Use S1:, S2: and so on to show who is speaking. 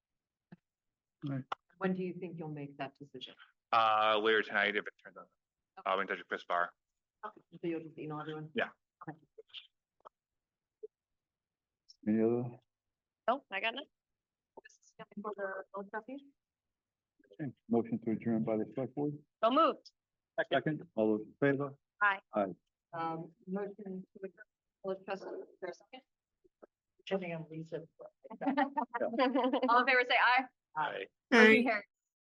S1: Right.
S2: When do you think you'll make that decision?
S3: Uh, later tonight, if it turns out,
S2: Okay.
S3: I'll be in touch with Chris Barr.
S2: So you'll just email everyone?
S1: Any other?
S4: Oh, I got nothing.
S2: For the old trustee?
S1: Okay. Motion to adjourn by the select board?
S4: So moved.
S1: Second. All those in favor?
S2: Um, motion to the old trustee, is there a second?
S5: Jimmy and Lisa.
S4: All in favor, say aye.
S3: Hi.
S4: Motion carries.